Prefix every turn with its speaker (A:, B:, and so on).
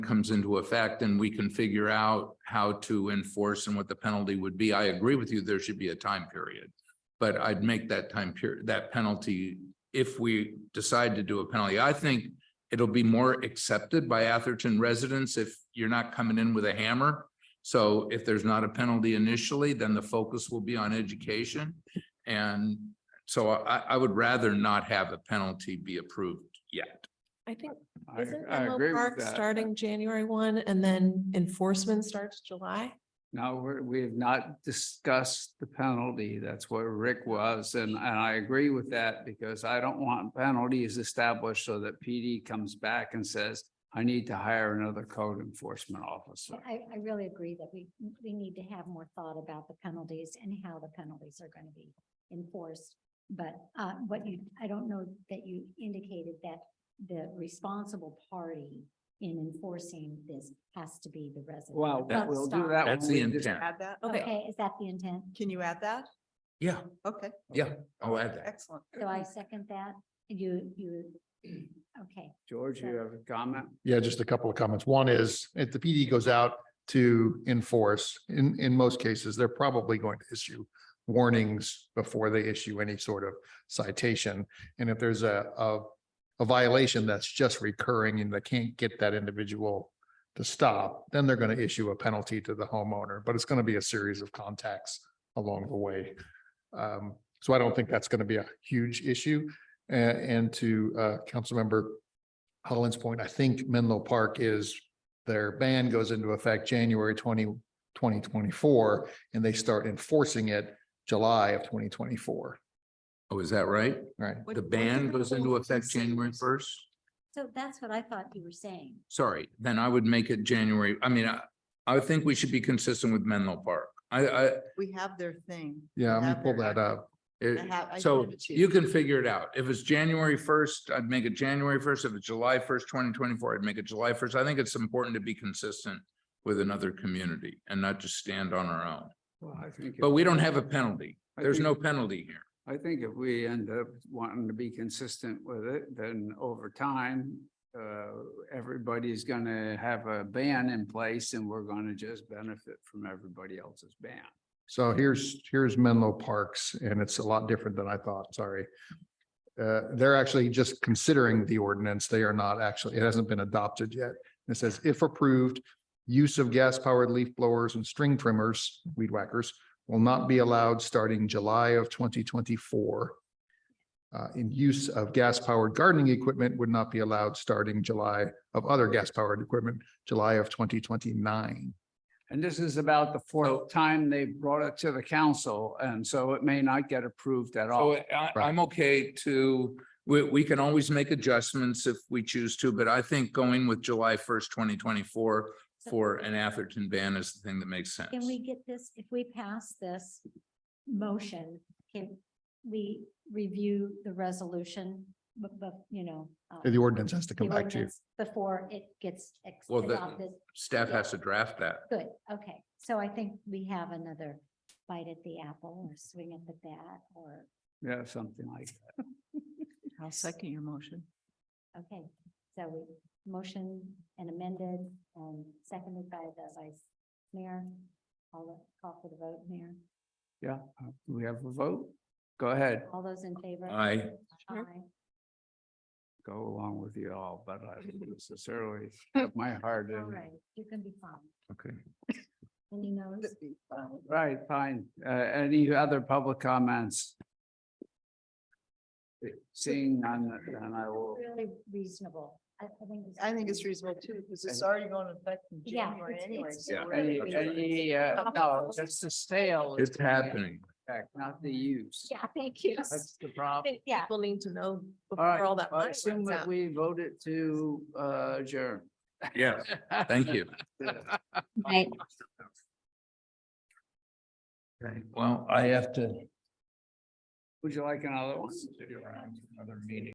A: comes into effect and we can figure out how to enforce and what the penalty would be. I agree with you, there should be a time period. But I'd make that time period, that penalty, if we decide to do a penalty, I think it'll be more accepted by Atherton residents if you're not coming in with a hammer. So if there's not a penalty initially, then the focus will be on education. And so I, I would rather not have a penalty be approved yet.
B: I think,
C: I,
B: isn't
C: I agree
B: Menlo
C: with
B: Park
C: that.
B: starting January one and then enforcement starts July?
C: Now, we're, we have not discussed the penalty. That's what Rick was, and, and I agree with that because I don't want penalties established so that PD comes back and says, I need to hire another code enforcement officer.
D: I, I really agree that we, we need to have more thought about the penalties and how the penalties are going to be enforced. But uh, what you, I don't know that you indicated that the responsible party in enforcing this has to be the resident.
C: Well,
A: That's-
C: we'll do that.
A: That's
C: when
A: the
C: we dis-
A: intent.
E: Add that? Oh,
B: Okay,
D: Okay, is that the intent?
E: Can you add that?
A: Yeah,
E: Okay.
A: yeah, I'll add that.
E: Excellent.
D: So
A: Uh-huh.
D: I second that. You, you, okay.
C: George, you have a comment?
F: Yeah, just a couple of comments. One is, if the PD goes out to enforce, in, in most cases, they're probably going to issue warnings before they issue any sort of citation. And if there's a, a, a violation that's just recurring and they can't get that individual to stop, then they're going to issue a penalty to the homeowner, but it's going to be a series of contacts along the way. Um, so I don't think that's going to be a huge issue. A- And, to, uh, Councilmember Holland's point, I think Menlo Park is, their ban goes into effect January 20, 2024, and they start enforcing it July of twenty twenty-four,
A: Oh, is that right?
F: right?
E: What-
A: The
E: what
A: ban
E: different
A: goes into
E: rules and
A: effect January
E: seasons?
A: first?
D: So that's what I thought you were saying.
A: Sorry, then I would make it January. I mean, I, I think we should be consistent with Menlo Park. I, I,
E: We have their thing. We
F: Yeah, I'm
E: have
F: gonna pull
E: their-
F: that up.
A: it-
E: I have- I
A: eh, so
E: give it to you.
A: you can figure it out. If it's January first, I'd make it January first. If it's July first, twenty twenty-four, I'd make it July first. I think it's important to be consistent with another community and not just stand on our own.
C: Well, I think.
A: But we don't have a penalty.
C: I
A: There's
C: think-
A: no penalty here.
C: I think if we end up wanting to be consistent with it, then over time, uh, everybody's gonna have a ban in place and we're gonna just benefit from everybody else's ban.
F: So here's, here's Menlo Parks, and it's a lot different than I thought, sorry. Uh, they're actually just considering the ordinance. They are not actually, it hasn't been adopted yet. It says if approved, use of gas powered leaf blowers and string trimmers, weed whackers, will not be allowed starting July of twenty twenty four. Uh, and use of gas powered gardening equipment would not be allowed starting July of other gas powered equipment, July of twenty twenty nine.
C: And this is about the
A: So-
C: fourth time they brought it to the council, and so it may not get approved at all.
A: So I,
F: Right.
A: I'm okay to, we, we can always make adjustments if we choose to, but I think going with July first, twenty twenty-four for an Atherton ban is the thing that makes sense.
D: Can we get this, if we pass this motion, can we review the resolution? But, you know. uh,
F: The ordinance has to
D: the
F: come back to you.
D: ordinance Before it gets ex-
A: Well, the-
D: adopted.
A: Staff has to draft that.
D: Good, okay. So I think we have another bite at the apple or swing at the bat or,
C: Yeah, something like that.
E: I'll second your motion.
D: okay. So we, motion and amended and seconded by the vice mayor. I'll call for the vote, mayor.
C: Yeah, uh, do we have a vote? Go ahead,
D: All those in favor?
A: Aye.
B: Sure.
D: Aye.
C: go along with you all, but I don't necessarily have my heart
D: All
C: in. it.
D: right, you can be fine.
A: Okay.
D: And you know.
C: Right, fine. Uh, any other public comments? Seeing none, then I will,
D: Really reasonable. I, I think. it's-
E: I think it's reasonable too, because it's already going to affect in
D: Yeah,
E: January
D: it's-
E: anyway.
D: it's-
E: so
D: Yeah.
E: we're
C: any,
E: gonna be-
C: any, uh, no, that's the sale. is
A: It's
C: going into
A: happening.
C: effect, Not the use.
D: Yeah, thank you.
C: That's the problem.
D: Yeah.
B: People need to know
C: All right,
B: before all that
C: well, I
B: money
C: assume
B: runs
C: that
B: out.
C: we voted to, uh, adjourn.
A: Yes, thank you.
D: Right.
A: Well, I have to.
C: Would you like another one?
A: Another meeting.